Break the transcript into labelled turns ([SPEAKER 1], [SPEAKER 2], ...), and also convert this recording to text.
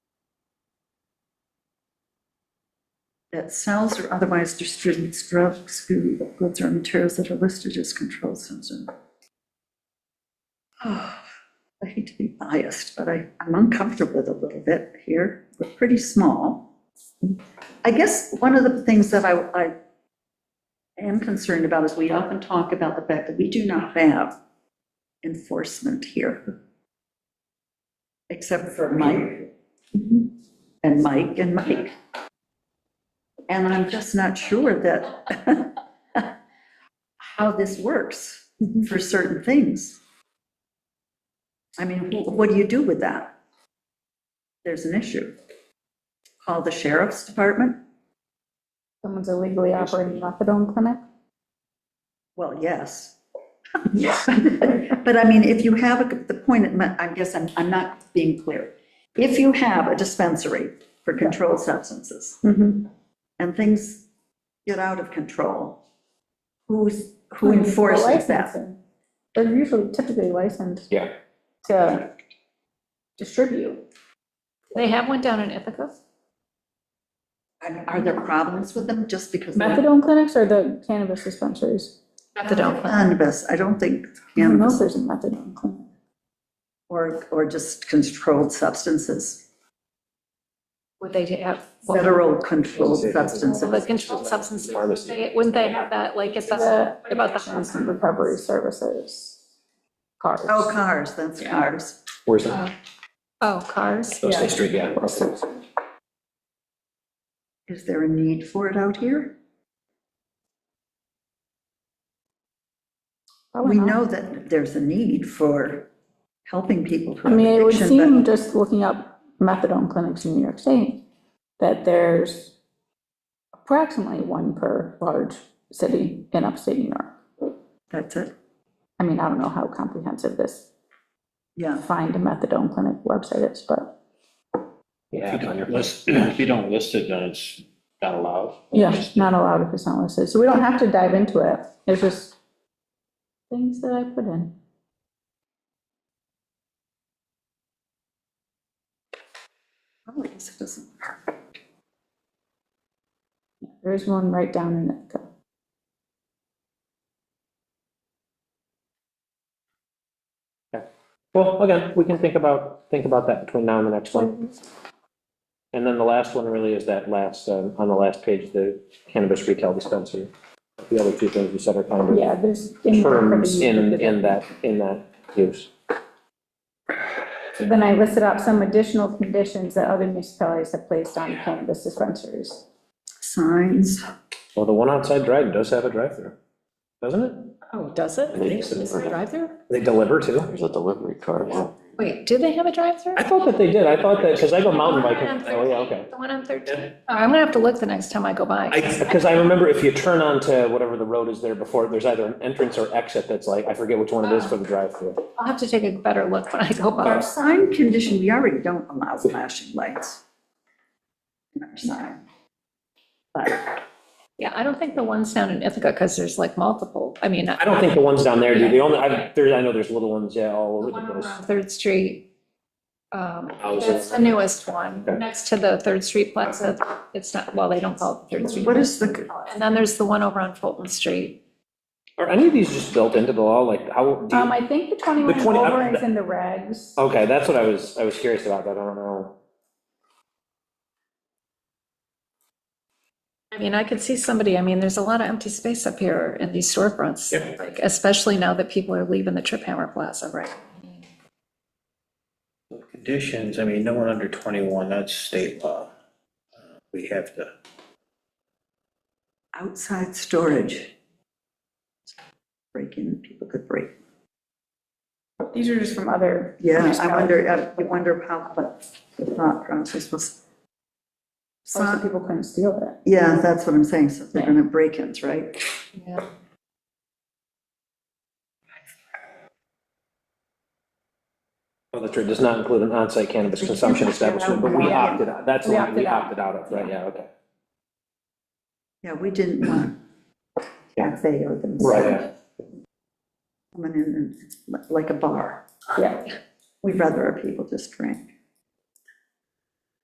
[SPEAKER 1] that sells or otherwise distributes drugs, food, goods, or materials that are listed as controlled substance. Oh, I hate to be biased, but I, I'm uncomfortable with it a little bit here. We're pretty small. I guess one of the things that I, I am concerned about is we often talk about the fact that we do not have enforcement here. Except for Mike. And Mike and Mike. And I'm just not sure that, how this works for certain things. I mean, wh- what do you do with that? There's an issue. Call the sheriff's department?
[SPEAKER 2] Someone's illegally operating a methadone clinic?
[SPEAKER 1] Well, yes. But I mean, if you have, a- the point, at my- I guess I'm, I'm not being clear. If you have a dispensary for controlled substances,
[SPEAKER 3] Mm-hmm.
[SPEAKER 1] and things get out of control, who's,
[SPEAKER 2] Hmm.
[SPEAKER 1] who enforces that?
[SPEAKER 2] Licensing. They're usually typically licensed
[SPEAKER 4] Yeah.
[SPEAKER 2] to distribute.
[SPEAKER 3] They have one down in Ithaca?
[SPEAKER 1] And Are there problems with them just because? they're
[SPEAKER 2] Methadone clinics or the cannabis dispensaries?
[SPEAKER 3] Methadone clinic.
[SPEAKER 1] Cannabis, I don't think
[SPEAKER 2] I don't know if
[SPEAKER 1] cannabis
[SPEAKER 2] there's a methadone clinic.
[SPEAKER 1] or, or just controlled substances,
[SPEAKER 3] Would they have?
[SPEAKER 1] federal controlled substances.
[SPEAKER 3] The controlled substances,
[SPEAKER 4] Pharmacy.
[SPEAKER 3] they- wouldn't they have that, like, it's
[SPEAKER 2] The
[SPEAKER 3] a, about the,
[SPEAKER 2] Addiction Recovery Services, cars.
[SPEAKER 1] Oh, cars, that's cars.
[SPEAKER 4] Where's that?
[SPEAKER 3] oh, cars?
[SPEAKER 4] Oh, State Street, yeah. okay.
[SPEAKER 1] Is there a need for it out here?
[SPEAKER 2] Probably
[SPEAKER 1] We
[SPEAKER 2] not.
[SPEAKER 1] know that there's a need for helping people
[SPEAKER 2] I
[SPEAKER 1] who have
[SPEAKER 2] mean, it would
[SPEAKER 1] addiction, but-
[SPEAKER 2] seem, just looking up methadone clinics in New York State, that there's approximately one per large city in upstate New York.
[SPEAKER 1] That's it,
[SPEAKER 2] I mean, I don't know how comprehensive this
[SPEAKER 1] yeah.
[SPEAKER 2] find a methadone clinic website is, but
[SPEAKER 4] Yeah,
[SPEAKER 5] If you
[SPEAKER 4] on your-
[SPEAKER 5] don't list- if you don't list it, then it's not allowed.
[SPEAKER 2] yeah, it's not allowed if it's not listed. So we don't have to dive into it. It's just things that I put in.
[SPEAKER 1] Oh, I guess it doesn't work.
[SPEAKER 2] There's one right down in Ithaca.
[SPEAKER 4] Well, again, we can think about, think about that between now and the next one. And then the last one really is that last, um, on the last page, the cannabis retail dispensary. The other two things you said are kind of
[SPEAKER 2] Yeah, there's.
[SPEAKER 4] terms in, in that, in that use.
[SPEAKER 2] So Then I listed out some additional conditions that other municipalities have placed on cannabis dispensaries.
[SPEAKER 1] Signs,
[SPEAKER 4] Well, the one outside Dryden does have a drive-through, doesn't it?
[SPEAKER 3] Oh, does it?
[SPEAKER 4] think so. Is it
[SPEAKER 3] drive-through?
[SPEAKER 4] They deliver too.
[SPEAKER 6] There's a delivery car.
[SPEAKER 3] Wait, do they have a drive-through?
[SPEAKER 4] I thought that they did. I thought that, because I go mountain
[SPEAKER 3] The one on
[SPEAKER 4] biking. Oh, yeah,
[SPEAKER 3] 13,
[SPEAKER 4] okay.
[SPEAKER 3] The one on 13. Oh, I'm gonna have to look the next time I go by.
[SPEAKER 4] I, because I remember if you turn onto whatever the road is there before, there's either an entrance or exit that's like, I forget which one it is
[SPEAKER 2] Oh.
[SPEAKER 4] for the drive-through.
[SPEAKER 3] I'll have to take a better look when I go
[SPEAKER 1] our
[SPEAKER 3] by.
[SPEAKER 1] sign condition, we already don't allow flashing lights. in our sign. But
[SPEAKER 3] Yeah, I don't think the ones down in Ithaca, because there's like multiple, I mean.
[SPEAKER 4] I don't think the ones down there do. The only, I, there, I know there's little ones, yeah, all
[SPEAKER 3] The
[SPEAKER 4] over
[SPEAKER 3] one
[SPEAKER 4] the place.
[SPEAKER 3] on uh, Third Street. um,
[SPEAKER 4] Houses.
[SPEAKER 3] That's the newest one,
[SPEAKER 4] Oh, Okay.
[SPEAKER 3] next to the Third Street Plaza. It's not, well, they don't call it Third Street.
[SPEAKER 1] What is the,
[SPEAKER 3] And then there's the one over on Fulton Street.
[SPEAKER 4] Are any of these just built into the law? Like, how, do
[SPEAKER 2] Um,
[SPEAKER 4] you-
[SPEAKER 2] I think the Oh. 21
[SPEAKER 4] The 20 I-
[SPEAKER 2] over is in the regs.
[SPEAKER 4] okay, that's what I was, I was curious about, but I don't know.
[SPEAKER 3] I mean, I could see somebody, I mean, there's a lot of empty space up here in these storefronts,
[SPEAKER 4] Yeah.
[SPEAKER 3] like especially now that people are leaving the Trip Hammer Plaza, right?
[SPEAKER 5] Conditions, I mean, no one under 21, that's state law. Uh, We have to,
[SPEAKER 1] outside storage. Break in, people could break.
[SPEAKER 2] These are just from other.
[SPEAKER 1] Yeah, I wonder, uh, I wonder how, but the thought process was.
[SPEAKER 2] Most people couldn't steal it.
[SPEAKER 1] Yeah, that's what I'm saying, so they're gonna break-ins, right?
[SPEAKER 3] Yeah.
[SPEAKER 4] Well, that's true. It does not include an on-site cannabis consumption establishment, but we
[SPEAKER 2] Yeah.
[SPEAKER 4] opted out. That's the
[SPEAKER 2] We
[SPEAKER 4] one we
[SPEAKER 2] opted out.
[SPEAKER 4] opted out of, right? Yeah, okay.
[SPEAKER 1] Yeah, we didn't want cafe or them
[SPEAKER 4] Right.
[SPEAKER 1] coming in and, like a bar.
[SPEAKER 2] Yeah.
[SPEAKER 1] We'd rather our people just drink.